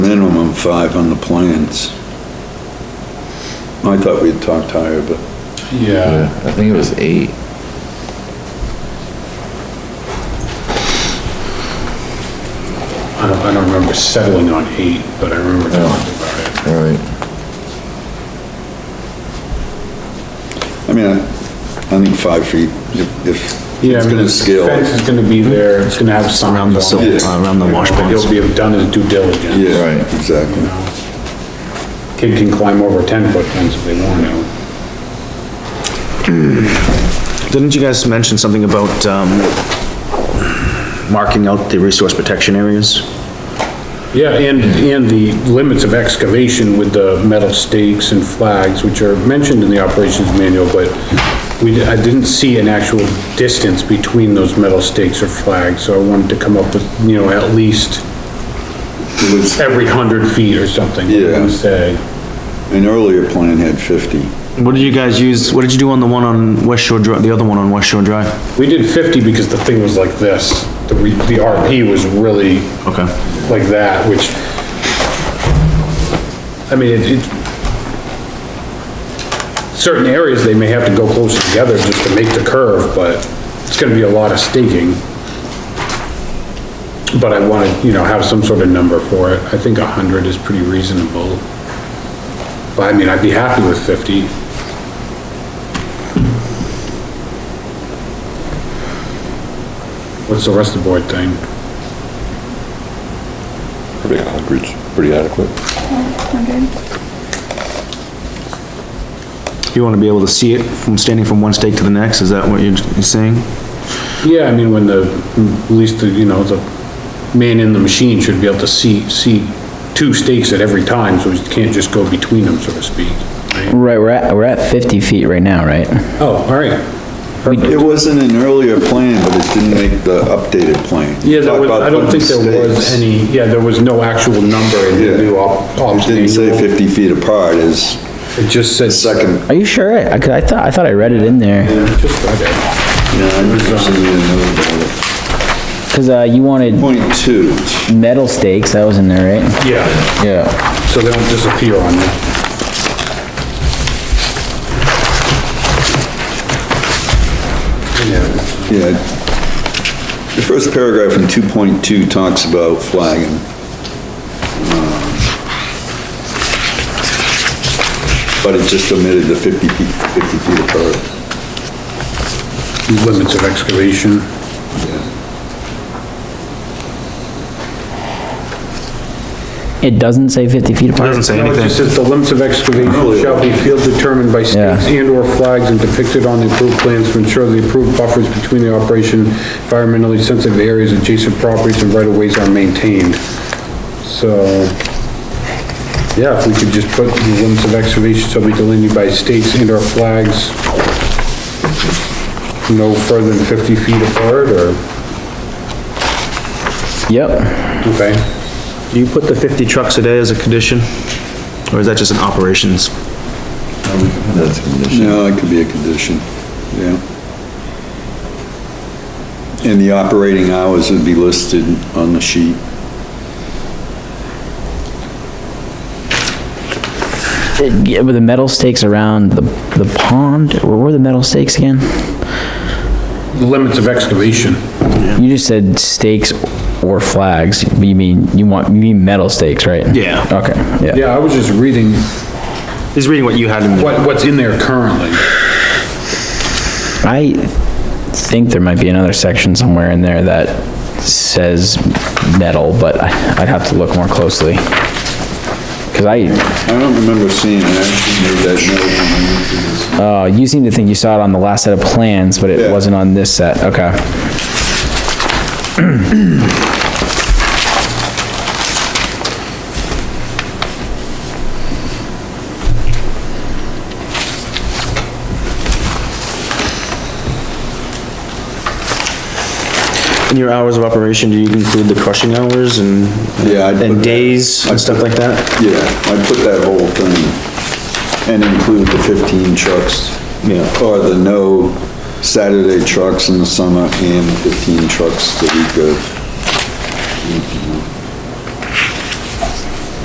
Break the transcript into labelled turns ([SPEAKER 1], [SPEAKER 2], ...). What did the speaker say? [SPEAKER 1] five on the plans. I thought we'd talked higher, but
[SPEAKER 2] Yeah,
[SPEAKER 3] Yeah, I think it was eight.
[SPEAKER 2] I don't, I don't remember settling on eight, but I remember talking about it.
[SPEAKER 3] All right,
[SPEAKER 1] I mean, I, I think five feet, if, if
[SPEAKER 2] Yeah, I
[SPEAKER 1] it's
[SPEAKER 2] mean,
[SPEAKER 1] gonna scale.
[SPEAKER 2] Fence is gonna be there, it's gonna have some. Around
[SPEAKER 1] sil-
[SPEAKER 4] around the wash ponds.
[SPEAKER 2] He'll be have done his due diligence.
[SPEAKER 1] Yeah,
[SPEAKER 3] Right.
[SPEAKER 1] exactly.
[SPEAKER 2] Kid can climb over a ten foot fence if they want to.
[SPEAKER 4] Didn't you guys mention something about, um, marking out the resource protection areas?
[SPEAKER 2] Yeah, and, and the limits of excavation with the metal stakes and flags, which are mentioned in the operations manual, but we, I didn't see an actual distance between those metal stakes or flags, so I wanted to come up with, you know, at least
[SPEAKER 1] It was,
[SPEAKER 2] every hundred feet or something. what do you
[SPEAKER 1] Yeah.
[SPEAKER 2] Say.
[SPEAKER 1] an earlier plan had fifty.
[SPEAKER 4] What did you guys use, what did you do on the one on West Shore Drive, the other one on West Shore Drive?
[SPEAKER 2] We did fifty because the thing was like this, the, re- the RP was really
[SPEAKER 4] Okay,
[SPEAKER 2] like that, which, I mean, it, it, certain areas, they may have to go closer together just to make the curve, but it's gonna be a lot of staking. But I wanna, you know, have some sort of number for it, I think a hundred is pretty reasonable. But I mean, I'd be happy with fifty. What's the rest of the board thing?
[SPEAKER 5] Pretty average, pretty adequate.
[SPEAKER 4] you wanna be able to see it from standing from one stake to the next, is that what you're you're saying?
[SPEAKER 2] Yeah, I mean, when the, at least, the, you know, the man in the machine should be able to see, see two stakes at every time, so he can't just go between them, so to speak. right?
[SPEAKER 6] Right, we're at, we're at 50 feet right now, right?
[SPEAKER 2] Oh, all right.
[SPEAKER 1] It wasn't an earlier plan, but it didn't make the updated plan.
[SPEAKER 2] Yeah, there
[SPEAKER 1] Talk
[SPEAKER 2] was,
[SPEAKER 1] about
[SPEAKER 2] I don't think
[SPEAKER 1] putting
[SPEAKER 2] there was
[SPEAKER 1] stakes.
[SPEAKER 2] any, yeah, there was no actual number in
[SPEAKER 1] Yeah.
[SPEAKER 2] the new op,
[SPEAKER 1] It
[SPEAKER 2] ops
[SPEAKER 1] didn't say
[SPEAKER 2] manual.
[SPEAKER 1] fifty feet apart is
[SPEAKER 2] It just said.
[SPEAKER 1] second,
[SPEAKER 6] Are you sure? I, I thought, I thought I read it in there,
[SPEAKER 2] Just read it.
[SPEAKER 1] yeah, I just didn't even know about it.
[SPEAKER 6] because, uh, you wanted
[SPEAKER 1] Point two,
[SPEAKER 6] metal stakes, that was in there, right?
[SPEAKER 2] Yeah,
[SPEAKER 6] Yeah.
[SPEAKER 2] so they don't disappear on you. Yeah.
[SPEAKER 1] yeah. The first paragraph in two point two talks about flagging. Uh, Um, But it just omitted the fifty feet, fifty feet apart.
[SPEAKER 2] Limits of excavation.
[SPEAKER 6] It doesn't say 50 feet apart?
[SPEAKER 4] Doesn't say
[SPEAKER 2] No, it
[SPEAKER 4] anything.
[SPEAKER 2] just says the limits of excavation shall be field determined by stakes
[SPEAKER 6] Yeah.
[SPEAKER 2] and/or flags and depicted on the approved plans to ensure the approved buffers between the operation, environmentally sensitive areas, adjacent properties, and right-of-ways are maintained. So, yeah, if we could just put the limits of excavation shall be delineated by stakes and/or flags no further than 50 feet apart, or,
[SPEAKER 6] Yep.
[SPEAKER 2] okay,
[SPEAKER 4] Do you put the fifty trucks a day as a condition? Or is that just an operations?
[SPEAKER 3] that's a condition.
[SPEAKER 1] No, it could be a condition, yeah. And the operating hours would be listed on the sheet.
[SPEAKER 6] It- yeah, With the metal stakes around the, the pond, where were the metal stakes again?
[SPEAKER 2] limits of excavation.
[SPEAKER 6] You just said stakes or flags, but you mean, you want, you mean metal stakes, right?
[SPEAKER 4] Yeah.
[SPEAKER 6] Okay, yeah.
[SPEAKER 2] Yeah, I was just reading
[SPEAKER 4] He's reading what you had in,
[SPEAKER 2] what, what's in there currently.
[SPEAKER 6] I think there might be another section somewhere in there that says metal, but I- I'd have to look more closely. Because I,
[SPEAKER 1] I don't remember seeing, it. I actually made that note when I went through this.
[SPEAKER 6] Oh, you seem to think you saw it on the last set of plans, but
[SPEAKER 1] Yeah.
[SPEAKER 6] it wasn't on this set, okay.
[SPEAKER 4] in your hours of operation, do you include the crushing hours and,
[SPEAKER 1] Yeah, I'd put
[SPEAKER 4] and
[SPEAKER 1] that-
[SPEAKER 4] days and stuff like that?
[SPEAKER 1] Yeah, I put that whole thing and include the 15 trucks.
[SPEAKER 4] Yeah.
[SPEAKER 1] Or the no Saturday trucks in the summer and 15 trucks the week of.